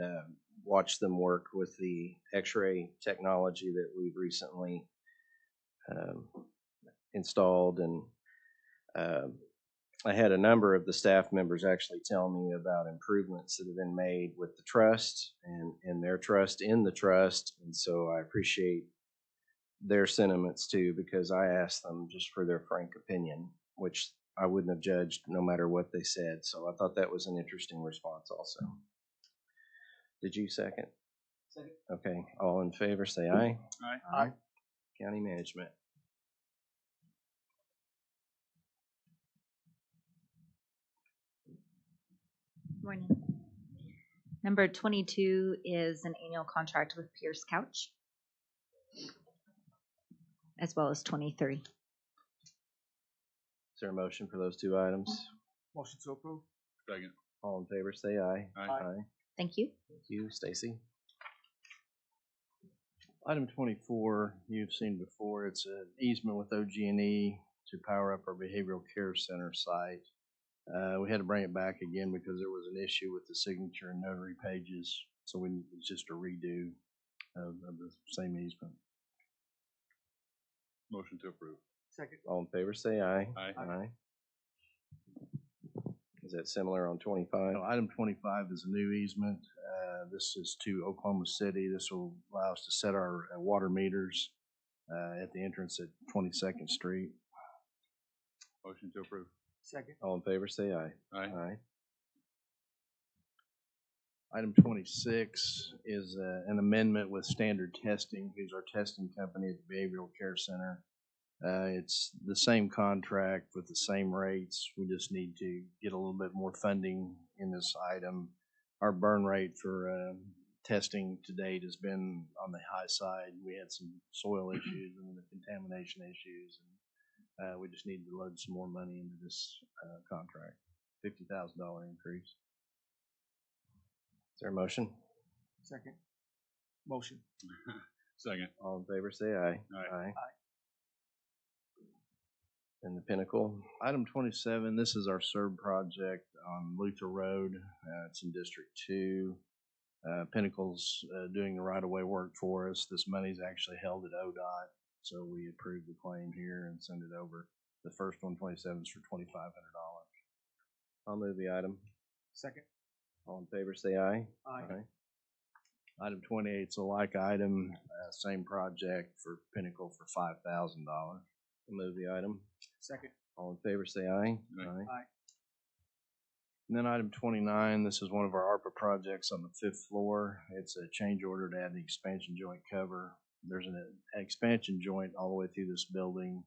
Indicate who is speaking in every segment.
Speaker 1: uh, watch them work with the x-ray technology that we've recently um, installed and um, I had a number of the staff members actually tell me about improvements that have been made with the trust and, and their trust in the trust. And so I appreciate their sentiments too, because I asked them just for their frank opinion, which I wouldn't have judged no matter what they said. So I thought that was an interesting response also. Did you second?
Speaker 2: Second.
Speaker 1: Okay, all in favor, say aye.
Speaker 2: Aye.
Speaker 1: County management.
Speaker 3: Morning. Number twenty-two is an annual contract with Pierce Couch. As well as twenty-three.
Speaker 1: Is there a motion for those two items?
Speaker 2: Motion to approve.
Speaker 4: Second.
Speaker 1: All in favor, say aye.
Speaker 4: Aye.
Speaker 1: Aye.
Speaker 3: Thank you.
Speaker 1: Thank you, Stacy.
Speaker 5: Item twenty-four, you've seen before, it's an easement with OG&E E to power up our behavioral care center site. Uh, we had to bring it back again because there was an issue with the signature and notary pages, so we, it's just a redo of, of the same easement.
Speaker 4: Motion to approve.
Speaker 2: Second.
Speaker 1: All in favor, say aye.
Speaker 4: Aye.
Speaker 1: Aye. Is that similar on twenty-five?
Speaker 5: Now, Item twenty-five is a new easement. Uh, This is to Oklahoma City. This will allow us to set our uh, water meters uh, at the entrance at Twenty-second Street.
Speaker 4: Motion to approve.
Speaker 2: Second.
Speaker 1: All in favor, say aye.
Speaker 4: Aye.
Speaker 1: Aye.
Speaker 5: Item twenty-six is uh, an amendment with Standard Testing, who's our testing company at the Behavioral Care Center. Uh, It's the same contract with the same rates. We just need to get a little bit more funding in this item. Our burn rate for um, testing to date has been on the high side. We had some soil issues and the contamination issues. and uh, We just need to load some more money into this uh, contract, fifty thousand dollar increase.
Speaker 1: Is there a motion?
Speaker 2: Second. Motion.
Speaker 4: Second.
Speaker 1: All in favor, say aye.
Speaker 4: Aye.
Speaker 1: And the Pinnacle,
Speaker 5: Item twenty-seven, this is our SERB project on Luther Road. Uh, it's in District Two. Uh, Pinnacle's, uh, doing the right-of-way work for us. This money's actually held at ODOT, so we approve the claim here and send it over. The first one, twenty-seven, is for twenty-five hundred dollars.
Speaker 1: I'll move the item.
Speaker 2: Second.
Speaker 1: All in favor, say aye.
Speaker 2: Aye.
Speaker 5: Item twenty-eight is a like item, uh, same project for Pinnacle for five thousand dollars.
Speaker 1: I'll Move the item.
Speaker 2: Second.
Speaker 1: All in favor, say aye.
Speaker 4: Aye.
Speaker 5: And then item twenty-nine, this is one of our ARPA projects on the fifth floor. It's a change order to add the expansion joint cover. There's an expansion joint all the way through this building,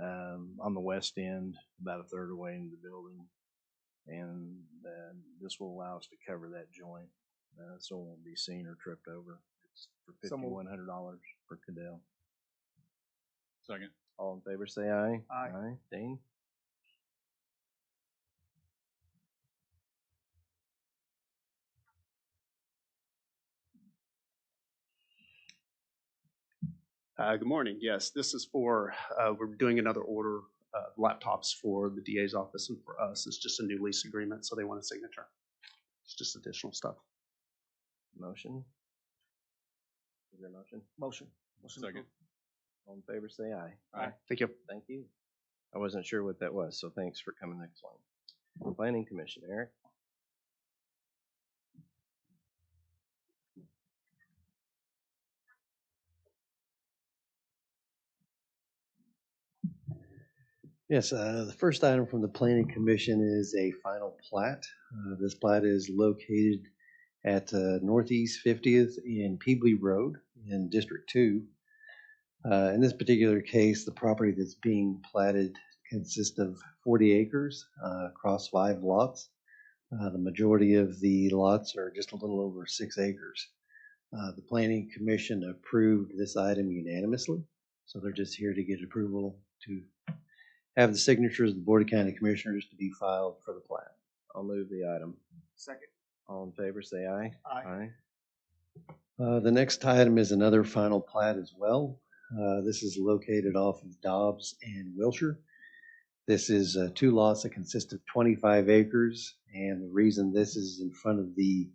Speaker 5: um, on the west end, about a third of the way into the building. And, uh, this will allow us to cover that joint, uh, so it won't be seen or tripped over. It's for
Speaker 2: So moved.
Speaker 5: fifty-one hundred dollars per Cadell.
Speaker 4: Second.
Speaker 1: All in favor, say aye.
Speaker 2: Aye.
Speaker 1: Aye. Dane?
Speaker 6: Uh, Good morning. Yes, this is for, uh, we're doing another order of uh, laptops for the DA's office and for us. It's just a new lease agreement, so they want a signature. It's just additional stuff.
Speaker 1: Motion? Is there a motion?
Speaker 2: Motion. Motion
Speaker 4: Second.
Speaker 2: to approve.
Speaker 1: All in favor, say aye.
Speaker 4: Aye.
Speaker 6: Thank you.
Speaker 1: Thank you. I wasn't sure what that was, so thanks for coming next one. Planning Commission, Eric?
Speaker 7: Yes, uh, the first item from the planning commission is a final plat. Uh, This plat is located at uh, Northeast Fiftieth and Peebly Road in District Two. Uh, In this particular case, the property that's being platted consists of forty acres uh, across five lots. Uh, The majority of the lots are just a little over six acres. Uh, The planning commission approved this item unanimously, so they're just here to get approval to have the signatures of the Board of County Commissioners to be filed for the plat.
Speaker 1: I'll move the item.
Speaker 2: Second.
Speaker 1: All in favor, say aye.
Speaker 2: Aye.
Speaker 7: Uh, The next item is another final plat as well. Uh, This is located off of Dobbs and Wilshire. This is uh, two lots that consist of 25 acres, and the reason this is in front of the